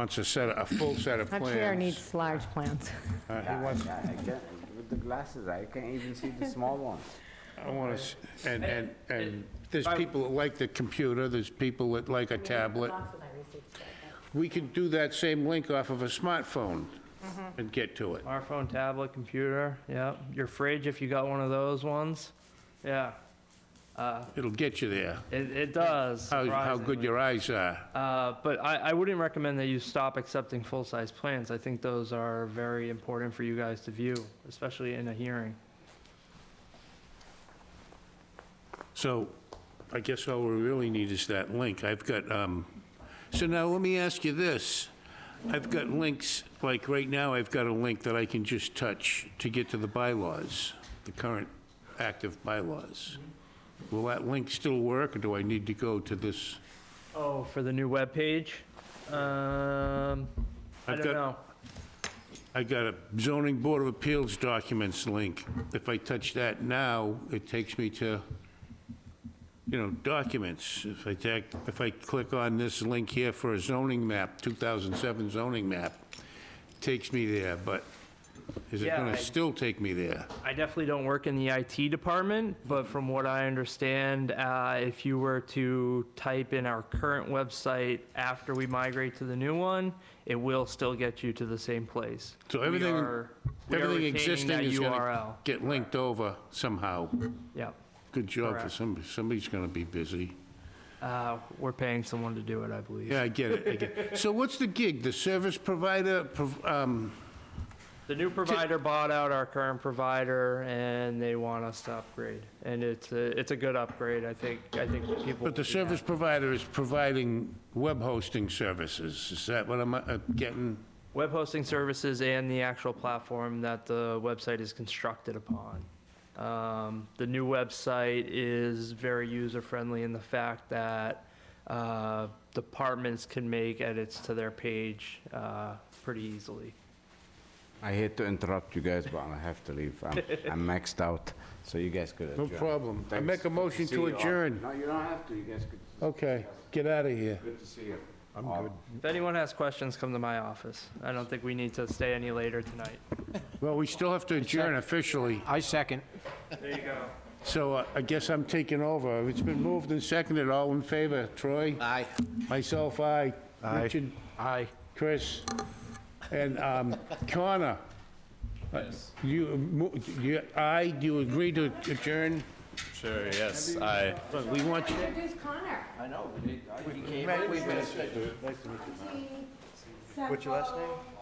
wants a set, a full set of Our plans. chair needs large plans. Uh, He I- wants, I I can't, with the glasses, I can't even see the small ones. I want to, and, and, and there's people that like the computer, there's people that like a tablet. We can do that same link off of a smartphone Mm-hmm. and get to it. Smartphone, tablet, computer, yep. Your fridge, if you got one of those ones, yeah. Uh, It'll get you there, it, it does. how, how good surprisingly. your eyes are. Uh, but I, I wouldn't recommend that you stop accepting full-size plans. I think those are very important for you guys to view, especially in a hearing. So I guess all we really need is that link. I've got, um, so now let me ask you this. I've got links, like right now, I've got a link that I can just touch to get to the bylaws, the current active bylaws. Will that link still work, or do I need to go to this? Oh, for the new webpage? Um, I I've don't got- know. I got a zoning board of appeals documents link. If I touch that now, it takes me to, you know, documents. If I tag, if I click on this link here for a zoning map, 2007 zoning map, takes me there, but is it Yeah, I- gonna still take me there? I definitely don't work in the IT department, but from what I understand, uh, if you were to type in our current website after we migrate to the new one, it will still get you to the same place. So We everything- are- we are Everything retaining existing that is gonna URL. get linked over somehow. Yep. Good job for Correct. somebody, somebody's gonna be busy. Uh, we're paying someone to do it, I believe. Yeah, I get it, I get it. So what's the gig? The service provider, prov- um, The new provider bought out our current provider, and they want us to upgrade. And it's a, it's a good upgrade, I think, I think people. But the service provider is providing web hosting services, is that what I'm uh, getting? Web hosting services and the actual platform that the website is constructed upon. Um, The new website is very user-friendly in the fact that uh, departments can make edits to their page uh, pretty easily. I hate to interrupt you guys, but I have to leave. I'm, I'm maxed out, so you guys could No adjourn. problem. I Thanks. make a Good motion see to you all. adjourn. No, you don't have to, you guys could, Okay, get out of here. good to see you. I'm all. good. If anyone has questions, come to my office. I don't think we need to stay any later tonight. Well, we still have to adjourn officially, I second. There you go. so uh, I guess I'm taking over. It's been moved and seconded, all in favor, Troy? Aye. Myself, aye. Richard, Aye. Chris, and um, Connor. Uh, You, mo- you- aye, do you agree to adjourn? Sure, yes, I, But we want you... Introduce Connor. I know. What's your last name?